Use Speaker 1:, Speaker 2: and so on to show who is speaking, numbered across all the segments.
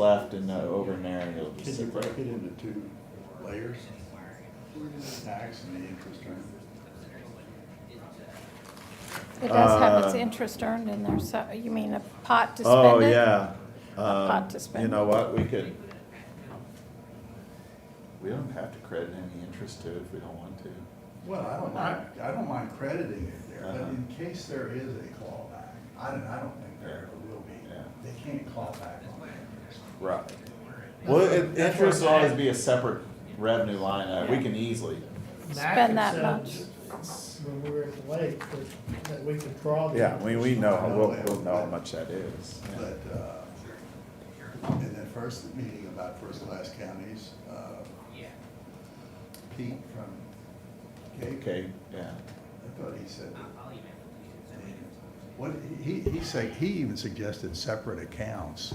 Speaker 1: left and uh, over in there and it'll just
Speaker 2: Can you
Speaker 1: sit
Speaker 2: break
Speaker 1: there.
Speaker 2: it into two layers? Tax and the interest earned.
Speaker 3: It does have its
Speaker 1: Uh,
Speaker 3: interest earned in there, so, you mean a pot to spend it?
Speaker 1: Oh, yeah.
Speaker 3: pot
Speaker 1: Um,
Speaker 3: to
Speaker 1: You
Speaker 3: spend.
Speaker 1: know what, we could. We don't have to credit any interest to it if we don't want to.
Speaker 2: Well, I don't mind, I don't mind crediting it there, but
Speaker 1: Uh-huh.
Speaker 2: in case there is a clawback, I don't, I don't think there ever will be.
Speaker 1: Yeah.
Speaker 2: They can't claw back on that.
Speaker 1: Right. Well, it-
Speaker 4: That's
Speaker 1: interest will
Speaker 4: where-
Speaker 1: always be a separate revenue line, uh, we can easily,
Speaker 3: Spend that
Speaker 4: Matt had
Speaker 3: much.
Speaker 4: said When we were at the lake, that- that we could draw.
Speaker 1: yeah, I mean, we know,
Speaker 2: I know
Speaker 1: we'll,
Speaker 2: that,
Speaker 1: we'll know how
Speaker 2: but-
Speaker 1: much that is. yeah.
Speaker 2: But, uh, in that first meeting about first-class counties, uh, Pete from Cape,
Speaker 1: Okay, yeah.
Speaker 2: I thought he said. What, he, he said, he even suggested separate accounts.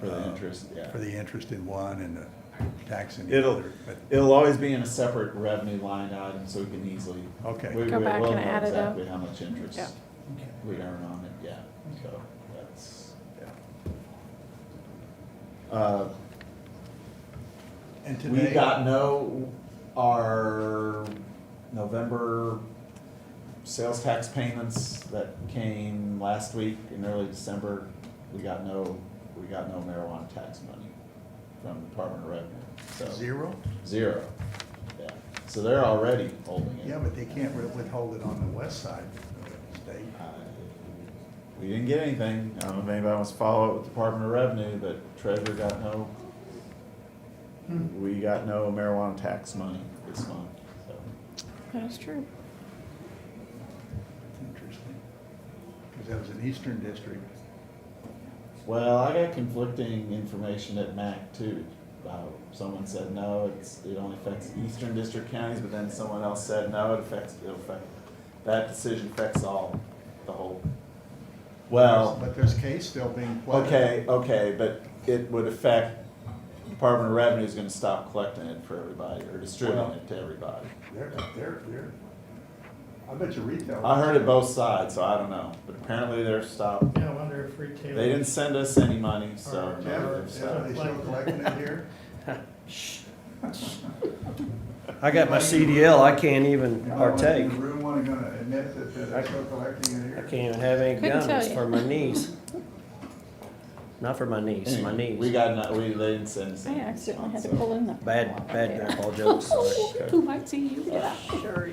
Speaker 1: For the
Speaker 2: uh,
Speaker 1: interest, yeah.
Speaker 2: For the interest in one and the tax in the
Speaker 1: It'll,
Speaker 2: other, but,
Speaker 1: it'll always be in a separate revenue line item, so we can easily.
Speaker 2: Okay.
Speaker 1: We we
Speaker 3: Go
Speaker 1: will
Speaker 3: back
Speaker 1: know
Speaker 3: and add it up.
Speaker 1: exactly how much interest
Speaker 3: Yeah.
Speaker 1: we earn on it, yeah, so that's, yeah. Uh,
Speaker 2: and
Speaker 1: We
Speaker 2: today.
Speaker 1: got no, our November sales tax payments that came last week in early December, we got no, we got no marijuana tax money from the Department of Revenue, so,
Speaker 2: Zero?
Speaker 1: zero. Yeah, so they're already holding it.
Speaker 2: Yeah, but they can't re- withhold it on the west side of the state.
Speaker 1: I- We didn't get anything, I don't know if anybody wants to follow up with Department of Revenue, but Treasurer got no, we got no marijuana tax money this month, so.
Speaker 3: That's true.
Speaker 2: Interesting. Because that was an eastern district.
Speaker 1: Well, I got conflicting information at MAC too. Uh, someone said no, it's, it only affects eastern district counties, but then someone else said no, it affects, it affects, that decision affects all, the whole. Well,
Speaker 2: But there's case still being played.
Speaker 1: okay, okay, but it would affect, Department of Revenue is gonna stop collecting it for everybody or distributing it to everybody.
Speaker 2: They're, they're, they're, I bet you retail.
Speaker 1: I heard it both sides, so I don't know, but apparently they're stopped.
Speaker 4: Yeah, I wonder if retail.
Speaker 1: They didn't send us any money, so.
Speaker 2: Jeff,
Speaker 1: they've
Speaker 2: Jeff, are
Speaker 1: stopped.
Speaker 2: they still collecting it here?
Speaker 5: I got my CDL, I can't even
Speaker 2: Anybody wanna-
Speaker 5: partake.
Speaker 2: in the room wanna gonna admit that they're still collecting it
Speaker 5: I
Speaker 2: here?
Speaker 5: can't even have any
Speaker 3: Couldn't
Speaker 5: gum,
Speaker 3: tell
Speaker 5: it's
Speaker 3: you.
Speaker 5: for my knees. Not for my niece, my
Speaker 1: Anyway, We
Speaker 5: knees.
Speaker 1: got, no- we, they didn't send us
Speaker 3: I
Speaker 1: any
Speaker 3: accidentally had to
Speaker 1: response, so-
Speaker 3: pull in the.
Speaker 5: Bad, bad grandpa jokes, sorry.
Speaker 1: Okay.
Speaker 3: Who might see you, get out.
Speaker 6: Sure,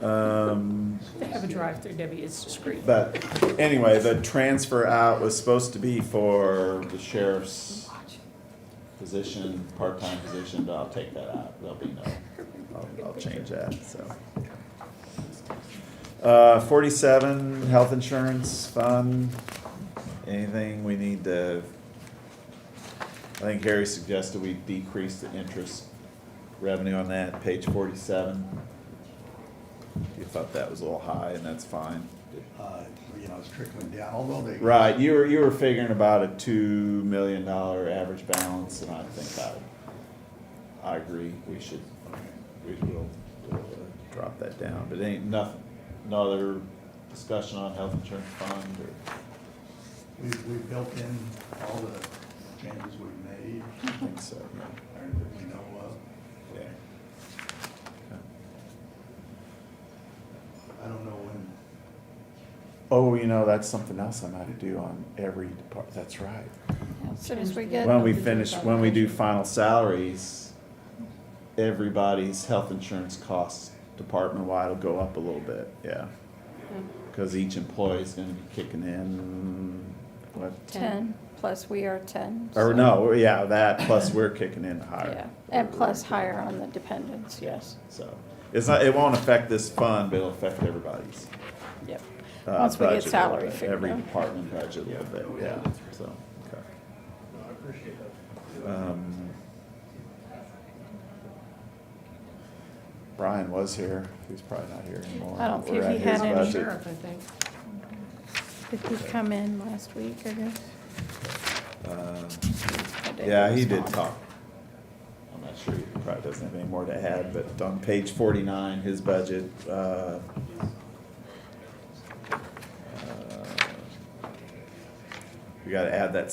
Speaker 1: Um,
Speaker 6: they have a drive-through, Debbie, it's discreet.
Speaker 1: but anyway, the transfer out was supposed to be for the sheriff's position, part-time position, but I'll take that out. There'll be no, I'll, I'll change that, so. Uh, forty-seven, health insurance fund. Anything we need to? I think Harry suggested we decrease the interest revenue on that, page forty-seven. You thought that was a little high, and that's fine.
Speaker 2: Uh, you know, it's trickling down, although they.
Speaker 1: Right, you were, you were figuring about a two million dollar average balance, and I think I, I agree, we should, we will, we'll uh, drop that down, but ain't nothing, no other discussion on health insurance fund or,
Speaker 2: We, we built in all the changes we've made,
Speaker 1: I think so,
Speaker 2: or that we know of.
Speaker 1: yeah. yeah.
Speaker 2: I don't know when,
Speaker 1: Oh, you know, that's something else I might do on every depart, that's right.
Speaker 3: As soon as we get.
Speaker 1: When we finish, when we do final salaries, everybody's health insurance costs department-wide will go up a little bit, yeah.
Speaker 3: Hmm.
Speaker 1: Cause each employee's gonna be kicking in, what,
Speaker 3: Ten, plus we are ten.
Speaker 1: or
Speaker 3: so-
Speaker 1: no, yeah, that, plus we're kicking in
Speaker 3: Yeah,
Speaker 1: higher.
Speaker 3: and plus higher on the dependents, yes,
Speaker 1: So, it's not, it won't affect this fund, but it'll affect everybody's.
Speaker 3: yep.
Speaker 1: uh, budget
Speaker 3: Once we get
Speaker 1: a little
Speaker 3: salary
Speaker 1: bit,
Speaker 3: figured
Speaker 1: Every
Speaker 3: out.
Speaker 1: department budget a little bit, yeah, so, okay. Um, Brian was here, he's probably not here anymore.
Speaker 3: I don't
Speaker 1: We're
Speaker 3: think he
Speaker 1: at
Speaker 3: had
Speaker 1: his
Speaker 3: any.
Speaker 1: budget.
Speaker 6: Sheriff, I think.
Speaker 3: Did he come in last week, I guess?
Speaker 1: Uh,
Speaker 3: I didn't
Speaker 1: Yeah, he did
Speaker 3: respond.
Speaker 1: talk. I'm not sure, he probably doesn't have any more to add, but on page forty-nine, his budget, uh, uh, we gotta add that